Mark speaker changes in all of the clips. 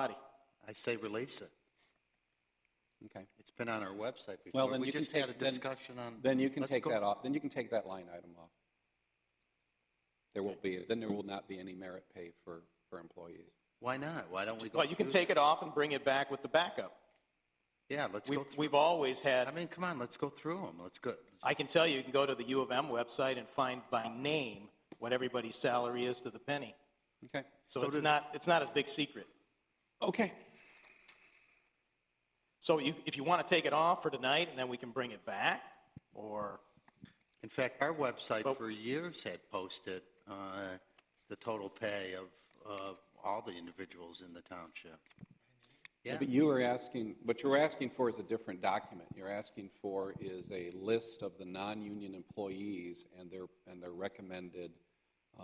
Speaker 1: body.
Speaker 2: I say release it.
Speaker 3: Okay.
Speaker 2: It's been on our website before.
Speaker 3: Well, then you can
Speaker 2: We just had
Speaker 3: take-
Speaker 2: a
Speaker 3: then-
Speaker 2: discussion on.
Speaker 3: Then you can
Speaker 2: Let's
Speaker 3: take
Speaker 2: go-
Speaker 3: that off, then you can take that line item off. There won't be, then there will not be any merit pay for, for employees.
Speaker 2: Why not? Why don't we go?
Speaker 1: Well, you can
Speaker 2: through
Speaker 1: take it off and bring it back with the backup.
Speaker 2: that? Yeah, let's
Speaker 1: We've,
Speaker 2: go through.
Speaker 1: we've always
Speaker 2: I
Speaker 1: had,
Speaker 2: mean, come on, let's go through them. Let's go.
Speaker 1: I can tell you, you can go to the U of M website and find by name what everybody's salary is to the penny.
Speaker 3: Okay?
Speaker 1: So it's not, it's not a big secret.
Speaker 3: Okay.
Speaker 1: So you, if you want to take it off for tonight and then we can bring it back, or,
Speaker 2: In fact, our website
Speaker 1: But-
Speaker 2: for years had posted uh, the total pay of, of all the individuals in the township. Yeah,
Speaker 3: But you were asking, what you were asking for is a different document. You're asking for is a list of the non-union employees and their, and their recommended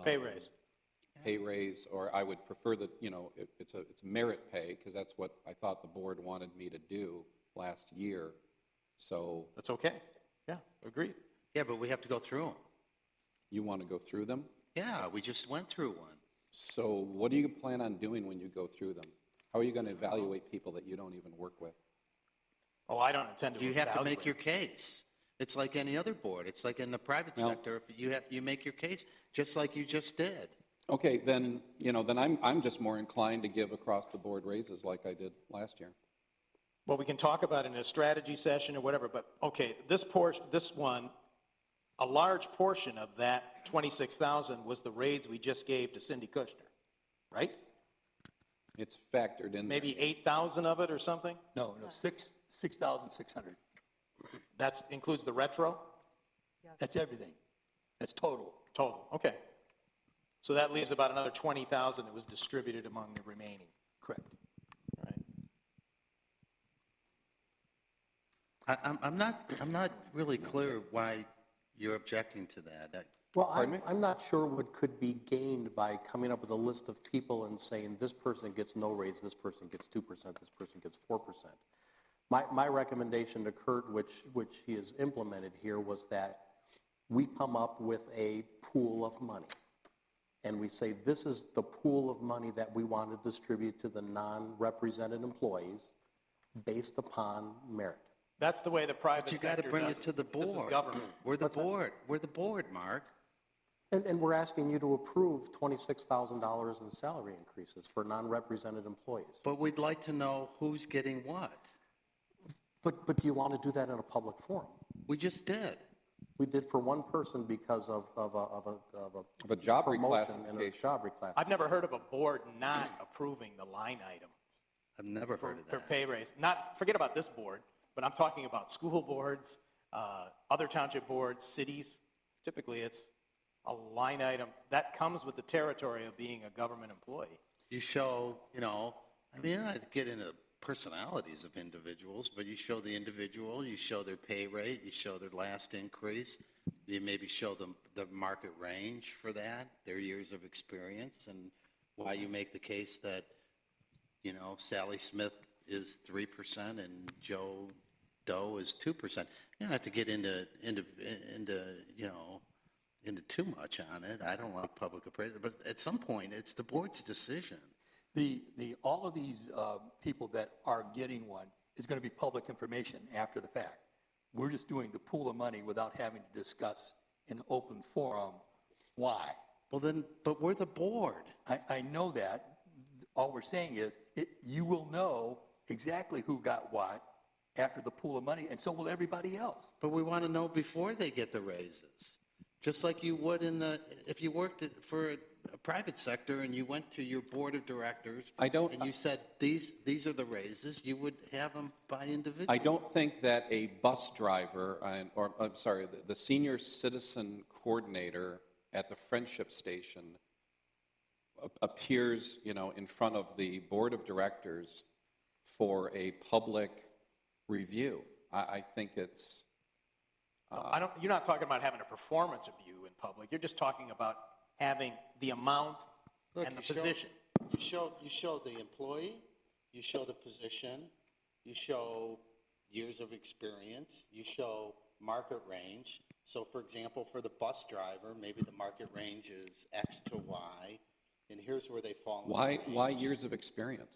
Speaker 1: pay raise.
Speaker 3: pay raise, or I would prefer that, you know, it, it's a, it's merit pay, because that's what I thought the board wanted me to do last year. So
Speaker 1: That's okay. Yeah, agreed.
Speaker 2: yeah, but we have to go through them.
Speaker 3: you want to go through them?
Speaker 2: Yeah, we just went through one.
Speaker 3: So what do you plan on doing when you go through them? How are you going to evaluate people that you don't even work with?
Speaker 1: Oh, I don't intend to
Speaker 2: You have to
Speaker 1: evaluate.
Speaker 2: make your case. It's like any other board. It's like in the private
Speaker 3: No.
Speaker 2: sector, if you have, you make your case, just like you just did.
Speaker 3: Okay, then, you know, then I'm, I'm just more inclined to give across-the-board raises like I did last year.
Speaker 1: Well, we can talk about it in a strategy session or whatever, but, okay, this portion, this one, a large portion of that 26,000 was the raids we just gave to Cindy Kushner, right?
Speaker 3: It's factored in. there.
Speaker 1: Maybe 8,000 of it or something?
Speaker 4: No, no, six, 6,600.
Speaker 1: That's, includes the retro
Speaker 4: That's everything. That's total.
Speaker 1: total, okay. So that leaves about another 20,000 that was distributed among the remaining,
Speaker 4: Correct.
Speaker 1: all right?
Speaker 2: I, I'm, I'm not, I'm not really clear why you're objecting to that. That-
Speaker 5: Well,
Speaker 3: Pardon
Speaker 5: I'm,
Speaker 3: me?
Speaker 5: I'm not sure what could be gained by coming up with a list of people and saying, this person gets no raise, this person gets 2%, this person gets 4%. My, my recommendation to Kurt, which, which he has implemented here, was that we come up with a pool of money. And we say, this is the pool of money that we want to distribute to the non-represented employees based upon merit.
Speaker 1: That's the way the private
Speaker 2: But you
Speaker 1: sector
Speaker 2: got to bring
Speaker 1: does
Speaker 2: it to the board.
Speaker 1: This is government.
Speaker 2: We're the board, we're the board, Mark.
Speaker 5: And, and we're asking you to approve $26,000 in salary increases for non-represented employees.
Speaker 2: But we'd like to know who's getting what.
Speaker 5: But, but do you want to do that in a public forum?
Speaker 2: We just did.
Speaker 5: We did for one person because of, of a, of a, of a.
Speaker 3: Of a job
Speaker 5: promotion and a
Speaker 3: reclassification.
Speaker 5: Job reclassification.
Speaker 1: I've never heard of a board not approving the line item.
Speaker 2: I've never
Speaker 1: for,
Speaker 2: heard of
Speaker 1: for
Speaker 2: that.
Speaker 1: pay raise. Not, forget about this board, but I'm talking about school boards, uh, other township boards, cities. Typically, it's a line item that comes with the territory of being a government employee.
Speaker 2: You show, you know, I mean, I get into personalities of individuals, but you show the individual, you show their pay rate, you show their last increase, you maybe show them the market range for that, their years of experience, and why you make the case that, you know, Sally Smith is 3% and Joe Doe is 2%. You don't have to get into, into, into, you know, into too much on it. I don't like public appraisal, but at some point, it's the board's decision.
Speaker 4: The, the, all of these uh, people that are getting one is going to be public information after the fact. We're just doing the pool of money without having to discuss in open forum why.
Speaker 2: Well, then, but we're the board.
Speaker 4: I, I know that. All we're saying is, it, you will know exactly who got what after the pool of money, and so will everybody else.
Speaker 2: But we want to know before they get the raises, just like you would in the, if you worked at- for a private sector and you went to your board of directors.
Speaker 3: I don't-
Speaker 2: And you said, these, these are the raises, you would have them by individual.
Speaker 3: I don't think that a bus driver, and- or, I'm sorry, the- the senior citizen coordinator at the Friendship Station a- appears, you know, in front of the Board of Directors for a public review. I, I think it's,
Speaker 2: Ah.
Speaker 1: I don't, you're not talking about having a performance review in public. You're just talking about having the amount
Speaker 2: Look,
Speaker 1: and the
Speaker 2: you show-
Speaker 1: position.
Speaker 2: You show, you show the employee, you show the position, you show years of experience, you show market range. So for example, for the bus driver, maybe the market range is X to Y, and here's where they fall. in the
Speaker 3: why,
Speaker 2: range.
Speaker 3: why years of experience?